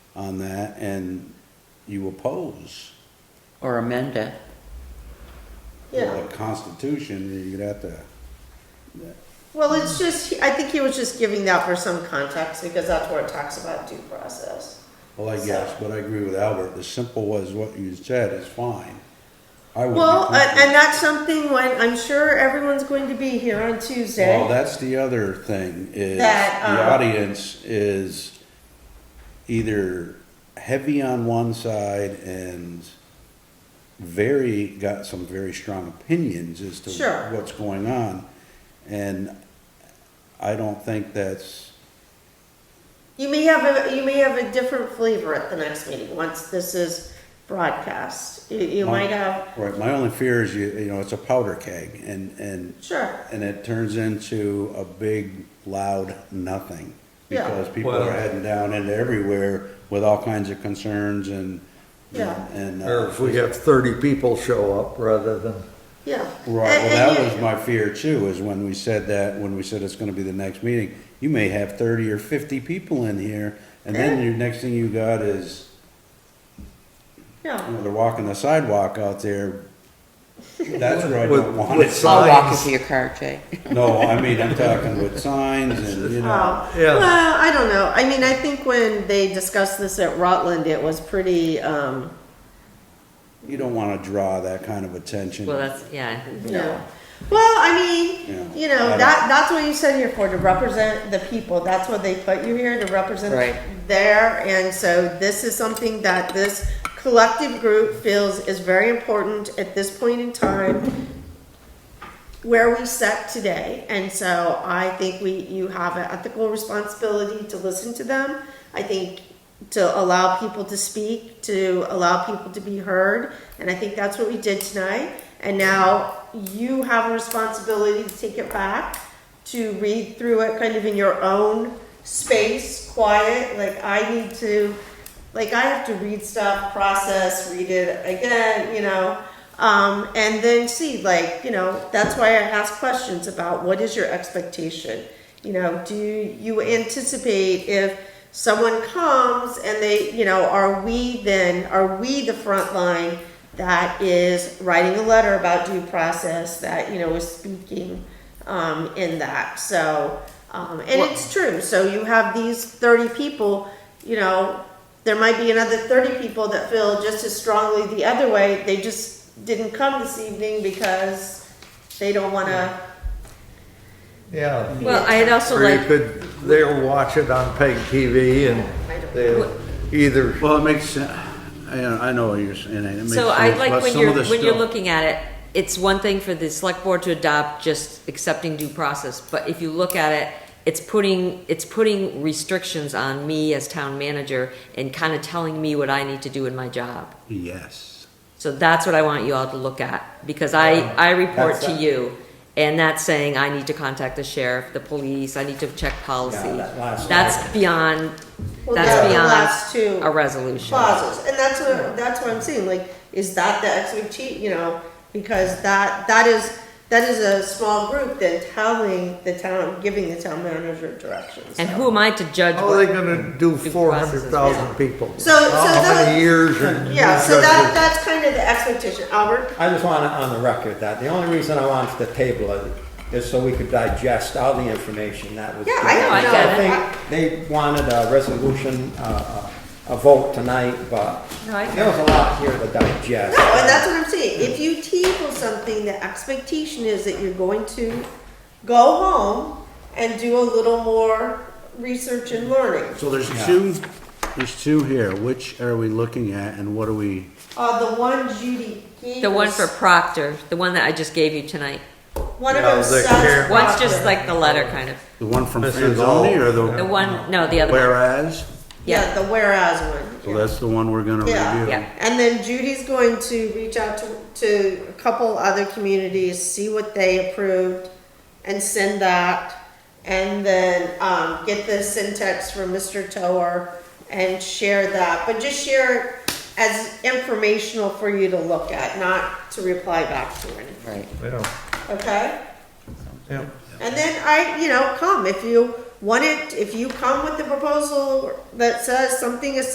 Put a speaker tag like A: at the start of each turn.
A: on that and you oppose
B: or amend it.
A: the
C: Yeah,
A: Constitution, you'd have to,
C: well, it's just, I think he was just giving that for some context, because that's where it talks about due process.
A: well, I guess, but I agree with Albert, the simple was what you said is fine. I would be
C: Well, a-
A: comfortable-
C: and that's something when, I'm sure everyone's going to be here on
A: Well,
C: Tuesday.
A: that's the other thing is
C: That,
A: the
C: um,
A: audience is either heavy on one side and very got some very strong opinions as to
C: Sure.
A: what's going on, and I don't think that's
C: You may have a, you may have a different flavor at the next meeting, once this is broadcast. You, you
A: My-
C: might have,
A: right. My only fear is you you know it's a powder keg and and
C: sure,
A: and it turns into a big loud nothing
C: Yeah.
A: because people
D: Well-
A: are heading down into everywhere with all kinds of concerns and
C: Yeah.
A: and, and
D: Or
A: uh,
D: if we have thirty people show up rather than,
C: yeah.
A: right.
C: And-
A: Well,
C: and
A: that
C: you-
A: was my fear too. Is when we said that when we said it's going to be the next meeting, you may have thirty or fifty people in here, and then
C: Yeah.
A: your next thing you got is you
C: Yeah,
A: know, they're walking the sidewalk out there. That's where I
D: With-
A: don't want
D: with
A: it.
B: I'll walk
D: Signs.
B: into your car, Jay.
A: No, I mean I'm talking with signs and you know.
C: oh,
D: Yeah.
C: well, I don't know, I mean, I think when they discussed this at Rutland, it was pretty, um,
A: You don't want to draw that kind of attention.
B: Well, that's, yeah.
C: Yeah. Well, I
A: Yeah.
C: mean, you
A: I
C: know,
A: don't-
C: that, that's what you send here for, to represent the people. That's what they put you here, to represent
B: Right.
C: there. And so this is something that this collective group feels is very important at this point in time where we set today. And so I think we, you have an ethical responsibility to listen to them. I think to allow people to speak, to allow people to be heard. And I think that's what we did tonight. And now you have a responsibility to take it back, to read through it kind of in your own space, quiet. Like I need to, like I have to read stuff, process, read it again, you know. Um, and then see, like, you know, that's why I ask questions about what is your expectation? You know, do you anticipate if someone comes and they, you know, are we then, are we the front line that is writing a letter about due process that, you know, is speaking um, in that? So, um, and it's true. So you have these 30 people, you know, there might be another 30 people that feel just as strongly the other way. They just didn't come this evening because they don't want to.
D: yeah.
B: Well, I'd also
D: Or you
B: like,
D: could, they'll watch it on PEG TV and they'll either,
A: Well, it makes sense. I, I know what you're saying. It makes
B: so
A: sense,
B: I'd like
A: but
B: when
A: some
B: you're,
A: of the
B: when you're
A: stuff-
B: looking at it, it's one thing for the select board to adopt just accepting due process, but if you look at it, it's putting, it's putting restrictions on me as town manager and kind of telling me what I need to do in my job.
A: Yes.
B: So that's what I want you all to look at, because I, I report to
E: That's-
B: you, and that's saying I need to contact the sheriff, the police, I need to check policy.
E: Yeah, that last
B: That's
E: slide.
B: beyond,
C: Well,
B: that's
C: that's the
B: beyond
C: last two
B: a resolution.
C: clauses, and that's what that's what I'm saying. Like, is that the expectation? You know, because that that is that is a small group then telling the town, giving the town manager directions.
B: And who am I to judge?
D: how are they
B: what-
D: gonna do
B: Due
D: four hundred thousand
B: process
D: people?
C: So- so
D: How
C: that-
D: many years? and-
C: yeah, so that that's kind of the expectation, Albert.
E: I just want it on the record that the only reason I wanted to table it is so we could digest all the information that was.
C: Yeah, I
E: given.
C: know, I
B: get it.
E: think they wanted a resolution, uh, a a vote tonight, but
B: No, I get
E: there was a lot here to digest.
C: No, and that's what I'm saying. If you table something, the expectation is that you're going to go home and do a little more research and learning.
A: So there's two, there's two here. Which are we looking at and what are we?
C: Uh, the one Judy gave
B: The one
C: us-
B: for Proctor, the one that I just gave you tonight.
C: one of
D: Yeah,
C: them
D: the
C: says
D: care-
B: One's just
C: Proctor.
B: like the letter, kind of.
A: The one from
D: This is
A: Franzoni
D: all-
A: or the?
B: The one, no, the other one.
A: Whereas?
C: yeah,
B: Yeah,
C: the whereas one.
A: So that's the one we're gonna
C: Yeah.
A: review.
B: Yeah.
C: And then Judy's going to reach out to, to a couple other communities, see what they approved, and send that. And then um, get the syntax from Mr. Tower and share that. But just share it as informational for you to look at, not to reply back to or anything.
B: right.
D: Yeah,
C: Okay?
D: yeah.
C: And then I, you know, come if you want it, if you come with the proposal that says something is